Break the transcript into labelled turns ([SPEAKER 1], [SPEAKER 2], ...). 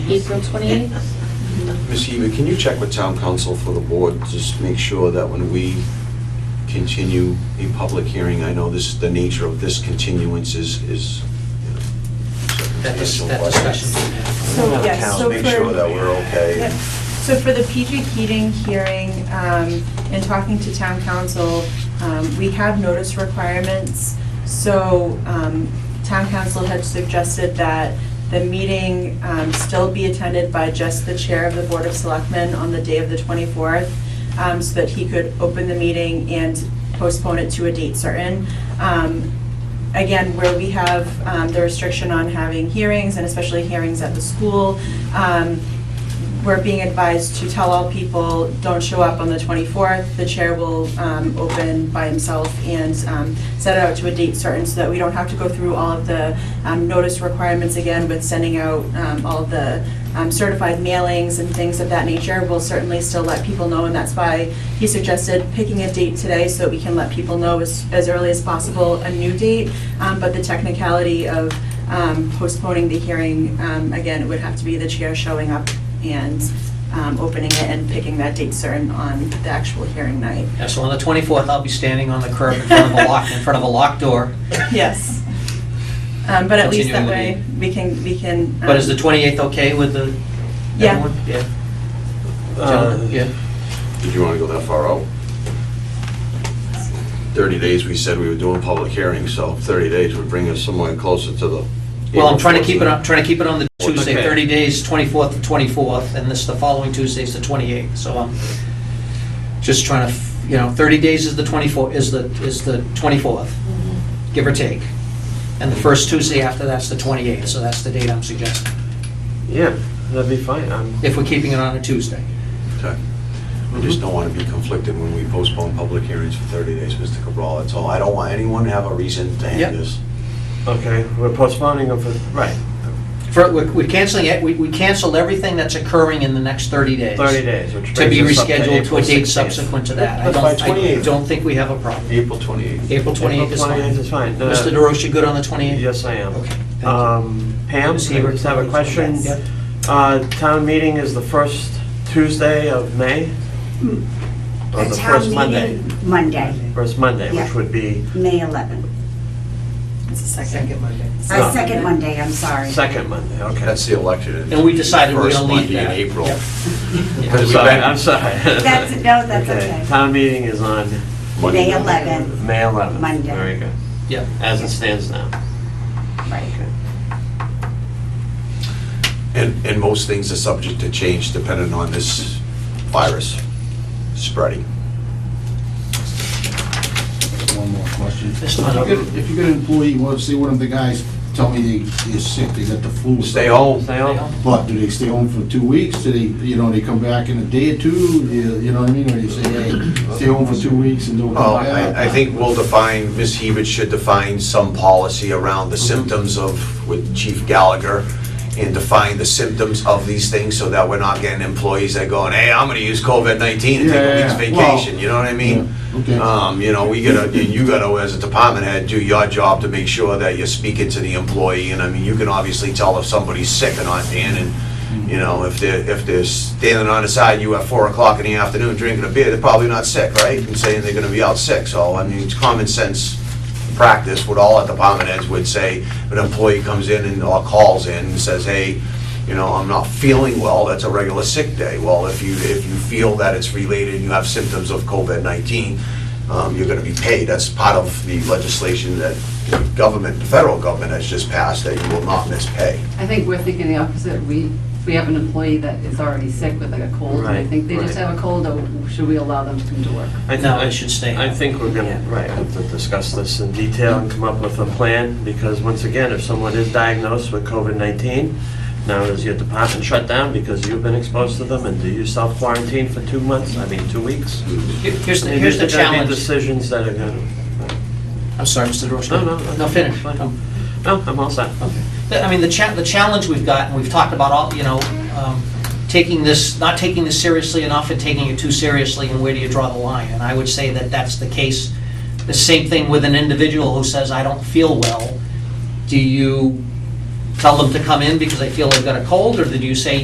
[SPEAKER 1] April 28th?
[SPEAKER 2] Ms. Eva, can you check with town council for the board, just make sure that when we continue a public hearing, I know this, the nature of this continuance is, is. you know,
[SPEAKER 3] That dis-
[SPEAKER 2] circumstantial,
[SPEAKER 3] that
[SPEAKER 2] but-
[SPEAKER 3] discussion.
[SPEAKER 4] So, yes,
[SPEAKER 2] Towns,
[SPEAKER 4] so
[SPEAKER 2] Make
[SPEAKER 4] for-
[SPEAKER 2] sure that we're okay.
[SPEAKER 4] Yep. So for the PG Keating hearing, um, and talking to town council, um, we have notice requirements. So, um, town council had suggested that the meeting, um, still be attended by just the chair of the Board of Selectmen on the day of the twenty-fourth, um, so that he could open the meeting and postpone it to a date certain. Um, again, where we have, um, the restriction on having hearings and especially hearings at the school, um, we're being advised to tell all people, don't show up on the 24th. The chair will um, open by himself and um, set it out to a date certain so that we don't have to go through all of the um, notice requirements again with sending out um, all the um, certified mailings and things of that nature. We'll certainly still let people know, and that's why he suggested picking a date today so that we can let people know as as early as possible a new date. Um, But the technicality of um, postponing the hearing, um, again, it would have to be the chair showing up and um, opening it and picking that date certain on the actual hearing night.
[SPEAKER 3] Yeah, so on the 24th, I'll be standing on the curb in front of a lock, in front of a locked door.
[SPEAKER 4] Yes. Um, But at least that
[SPEAKER 3] Continuing the
[SPEAKER 4] way, we can, we can.
[SPEAKER 3] But is the
[SPEAKER 4] um,
[SPEAKER 3] 28th okay with the,
[SPEAKER 4] Yeah.
[SPEAKER 3] everyone? Yeah.
[SPEAKER 5] Uh,
[SPEAKER 3] Gentlemen, Yeah.
[SPEAKER 2] Did you want to go that far out? 30 days, we said we were doing public hearings, so 30 days would bring us somewhere closer to the.
[SPEAKER 3] Well, I'm trying to keep it, I'm trying to keep it on the Tuesday,
[SPEAKER 5] Okay.
[SPEAKER 3] 30 days, 24th to 24th, and this, the following Tuesday's the 28th, so I'm just trying to, f- you know, 30 days is the 24, is the, is the 24th, give or take. And the first Tuesday after that's the 28th, so that's the date I'm suggesting,
[SPEAKER 5] Yeah, that'd be fine. Um, I'm-
[SPEAKER 3] if we're keeping it on a Tuesday.
[SPEAKER 2] Okay. We just don't want to be conflicted when we postpone public hearings for 30 days, Mr. Cabral, that's all. I don't want anyone to have a reason to
[SPEAKER 3] Yep.
[SPEAKER 2] hang this.
[SPEAKER 5] Okay, we're postponing them for, right,
[SPEAKER 3] For, we're we're canceling it, we we canceled everything that's occurring in the next 30 days.
[SPEAKER 5] 30 days, which
[SPEAKER 3] To be
[SPEAKER 5] brings us up
[SPEAKER 3] rescheduled to
[SPEAKER 5] April
[SPEAKER 3] a date
[SPEAKER 5] 16th.
[SPEAKER 3] subsequent to that. I
[SPEAKER 2] That's
[SPEAKER 3] don't,
[SPEAKER 2] by
[SPEAKER 3] I
[SPEAKER 2] 28th.
[SPEAKER 3] don't think we have a problem.
[SPEAKER 2] April 28th.
[SPEAKER 3] April 28th is
[SPEAKER 5] April 28th is uh,
[SPEAKER 3] fine.
[SPEAKER 5] fine. No,
[SPEAKER 3] Mr. DeRoche, good on the 28th?
[SPEAKER 5] Yes, I am.
[SPEAKER 3] Okay, thank you.
[SPEAKER 5] Um, Pam, I
[SPEAKER 3] Ms. Hebert?
[SPEAKER 5] just have a question.
[SPEAKER 3] Yes.
[SPEAKER 5] Uh, Town meeting is the first Tuesday of May? Or
[SPEAKER 6] Hmm. A
[SPEAKER 5] the
[SPEAKER 6] town
[SPEAKER 5] first Monday?
[SPEAKER 6] meeting Monday,
[SPEAKER 5] First Monday, which
[SPEAKER 6] Yeah.
[SPEAKER 5] would be
[SPEAKER 6] May 11th.
[SPEAKER 4] It's a second.
[SPEAKER 5] No.
[SPEAKER 6] Uh, Second
[SPEAKER 3] Ah.
[SPEAKER 6] Monday, I'm sorry.
[SPEAKER 5] second Monday, okay.
[SPEAKER 2] That's the election.
[SPEAKER 3] And we decided we're gonna leave
[SPEAKER 2] First
[SPEAKER 3] that.
[SPEAKER 2] Monday in April.
[SPEAKER 3] Yep.
[SPEAKER 5] I'm sorry, I'm sorry.
[SPEAKER 6] That's, no, that's
[SPEAKER 5] Okay,
[SPEAKER 6] okay.
[SPEAKER 5] town meeting is on
[SPEAKER 2] Monday.
[SPEAKER 6] May 11th,
[SPEAKER 5] May 11th.
[SPEAKER 6] Monday.
[SPEAKER 5] Very good,
[SPEAKER 3] Yeah,
[SPEAKER 5] as it stands now.
[SPEAKER 6] right.
[SPEAKER 5] Okay.
[SPEAKER 2] And, and most things are subject to change depending on this virus spreading.
[SPEAKER 7] One more question.
[SPEAKER 3] That's not-
[SPEAKER 7] If you get- If you get an employee, well, say one of the guys tell me they, they're sick, they got the flu.
[SPEAKER 2] Stay home.
[SPEAKER 5] Stay on?
[SPEAKER 7] But do they stay home for two weeks? Do they, you know, they come back in a day or two? You you know what I mean? Or you say, hey, stay home for two weeks and don't
[SPEAKER 2] Well,
[SPEAKER 7] come back?
[SPEAKER 2] I, I think we'll define, Ms. Hebert should define some policy around the
[SPEAKER 7] Mm-hmm.
[SPEAKER 2] symptoms of, with Chief Gallagher, and define the symptoms of these things so that we're not getting employees that going, hey, I'm gonna use COVID-19 and take
[SPEAKER 7] Yeah,
[SPEAKER 2] a
[SPEAKER 7] yeah,
[SPEAKER 2] week's
[SPEAKER 7] yeah. Well-
[SPEAKER 2] vacation, you know what I mean?
[SPEAKER 7] Yeah, okay.
[SPEAKER 2] Um, you know, we gotta, you- you gotta, as a department head, do your job to make sure that you're speaking to the employee, and I mean, you can obviously tell if somebody's sick or not, Dan, and, you know, if they're, if they're standing on the side, you at four o'clock in the afternoon drinking a beer, they're probably not sick, right? And saying they're gonna be out sick, so, I mean, it's common sense practice, what all our department heads would say, if an employee comes in and, or calls in and says, hey, you know, I'm not feeling well, that's a regular sick day. Well, if you, if you feel that it's related and you have symptoms of COVID-19, um, you're gonna be paid. That's part of the legislation that the government, the federal government has just passed, that you will not miss pay.
[SPEAKER 8] I think we're thinking the opposite. We, we have an employee that is already sick with like a cold, and I
[SPEAKER 5] Right,
[SPEAKER 8] think they just
[SPEAKER 5] right.
[SPEAKER 8] have a cold, or should we allow them to come to work?
[SPEAKER 5] I th-
[SPEAKER 3] No, it should stay.
[SPEAKER 5] I think we're gonna,
[SPEAKER 4] Yeah.
[SPEAKER 5] right, have to discuss this in detail and come up with a plan, because once again, if someone is diagnosed with COVID-19, now is your department shut down because you've been exposed to them, and do you self-quarantine for two months, I mean, two weeks?
[SPEAKER 3] Here- here's
[SPEAKER 5] I
[SPEAKER 3] the,
[SPEAKER 5] mean,
[SPEAKER 3] here's the
[SPEAKER 5] these are gonna be
[SPEAKER 3] challenge.
[SPEAKER 5] Decisions that are gonna,
[SPEAKER 3] I'm sorry, Mr. DeRoche.
[SPEAKER 5] No, no, no.
[SPEAKER 3] No, finish.
[SPEAKER 5] Fine.
[SPEAKER 3] Um,
[SPEAKER 5] no, I'm all set.
[SPEAKER 3] The- I mean, the cha, the challenge we've got, and we've talked about all, you know, um, taking this, not taking this seriously enough and taking it too seriously, and where do you draw the line? And I would say that that's the case. The same thing with an individual who says, I don't feel well. Do you tell them to come in because they feel they've got a cold, or do you say,